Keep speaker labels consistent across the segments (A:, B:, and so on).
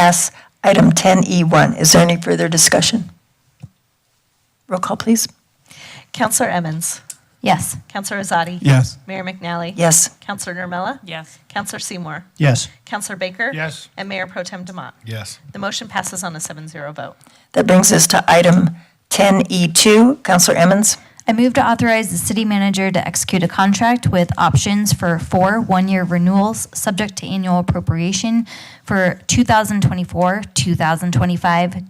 A: pass item 10E1. Is there any further discussion? Roll call, please.
B: Counselor Emmons.
C: Yes.
B: Counselor Azadi.
D: Yes.
B: Mayor McNally.
A: Yes.
B: Counselor Nermella.
E: Yes.
B: Counselor Seymour.
D: Yes.
B: Counselor Baker.
D: Yes.
B: And Mayor Pro Tem Demott.
D: Yes.
B: The motion passes on a 7-0 vote.
A: That brings us to item 10E2. Counselor Emmons?
C: I move to authorize the city manager to execute a contract with options for four one-year renewals, subject to annual appropriation for 2024, 2025,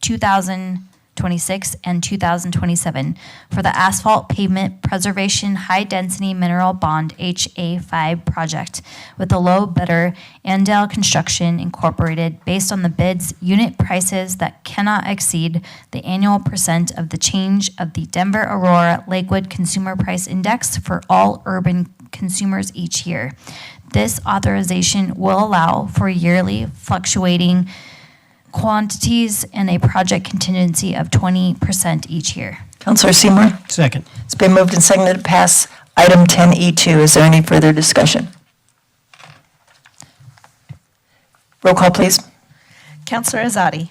C: 2026, and 2027 for the asphalt pavement preservation high-density mineral bond HA5 project with the low bidder Andale Construction Incorporated based on the bid's unit prices that cannot exceed the annual percent of the change of the Denver Aurora Lakewood Consumer Price Index for all urban consumers each year. This authorization will allow for yearly fluctuating quantities and a project contingency of 20% each year.
A: Counselor Seymour?
D: Second.
A: It's been moved and seconded to pass item 10E2. Is there any further discussion? Roll call, please.
B: Counselor Azadi.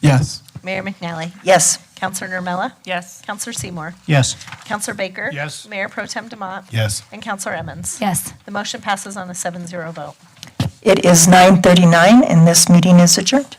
D: Yes.
B: Mayor McNally.
A: Yes.
B: Counselor Nermella.
E: Yes.
B: Counselor Seymour.
D: Yes.
B: Counselor Baker.
D: Yes.
B: Mayor Pro Tem Demott.
D: Yes.
B: And Counselor Emmons.
C: Yes.
B: The motion passes on a 7-0 vote.
A: It is 9:39, and this meeting is adjourned.